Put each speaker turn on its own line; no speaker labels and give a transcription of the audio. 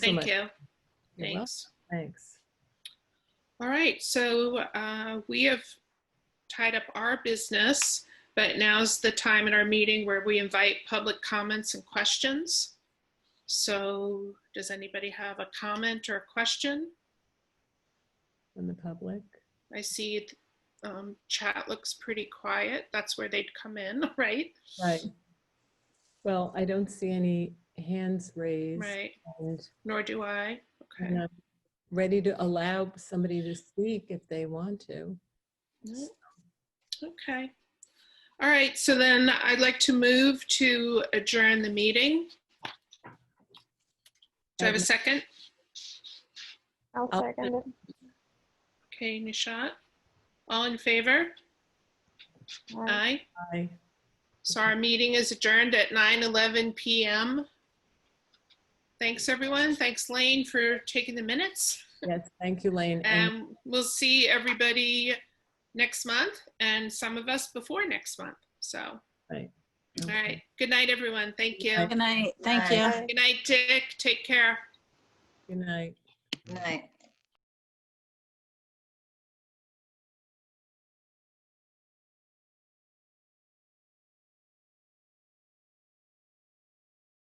Thank
Excellent.
you.
You're welcome.
Thanks.
Thanks.
All right, so uh, we have tied up our business, but now's the time in our meeting where we invite public comments and questions. So does anybody have a comment or a question?
And the public.
I see um, chat looks pretty quiet. That's where they'd come in, right?
Right. Well, I don't see any hands raised.
Right,
and
nor do I. Okay.
and I'm Ready to allow somebody to speak if they want to.
No. Okay. All right, so then I'd like to move to adjourn the meeting. Do I have a second?
I'll
I'll
second it.
Okay, Nishat. All in favor?
Aye.
Aye.
Aye.
So our meeting is adjourned at 9:11 PM. Thanks, everyone. Thanks, Lane, for taking the minutes.
Yes, thank you, Lane. And
And we'll see everybody next month and some of us before next month. So, all right. Good night, everyone. Thank you.
Good night. Thank you.
Aye.
Good night, Dick. Take care.
Good night.
Good night.